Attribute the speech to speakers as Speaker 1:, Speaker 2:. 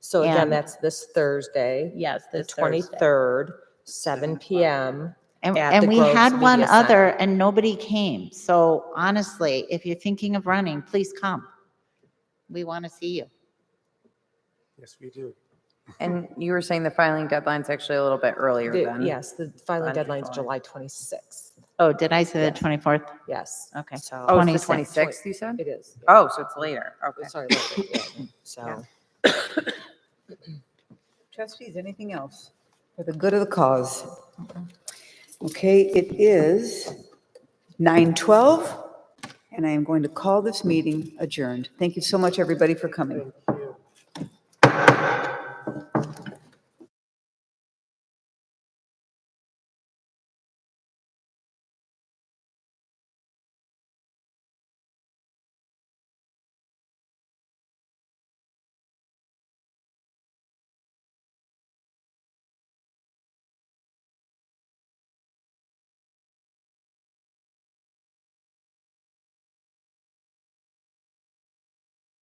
Speaker 1: So again,
Speaker 2: And-
Speaker 1: that's this Thursday,
Speaker 2: Yes,
Speaker 1: the
Speaker 2: this Thursday.
Speaker 1: 23rd, seven PM.
Speaker 2: And,
Speaker 1: at
Speaker 2: and
Speaker 1: the
Speaker 2: we
Speaker 1: Groves
Speaker 2: had one
Speaker 1: Media Center.
Speaker 2: other and nobody came. So honestly, if you're thinking of running, please come. We want to see you.
Speaker 3: Yes, we do.
Speaker 4: And you were saying the filing deadline's actually a little bit earlier
Speaker 1: The-
Speaker 4: than?
Speaker 1: Yes, the filing deadline's
Speaker 4: Wonderful.
Speaker 1: July 26th.
Speaker 2: Oh, did I say the 24th?
Speaker 1: Yes.
Speaker 2: Okay.
Speaker 1: So.
Speaker 4: Oh, it's
Speaker 2: 26th.
Speaker 4: the 26th, you said?
Speaker 1: It is.
Speaker 4: Oh, so it's later. Okay.
Speaker 1: Sorry. about that, yeah. So,
Speaker 5: Trustees, anything else for the good of the cause? Okay, it is 9:12, and I am going to call this meeting adjourned. Thank you so much, everybody, for coming.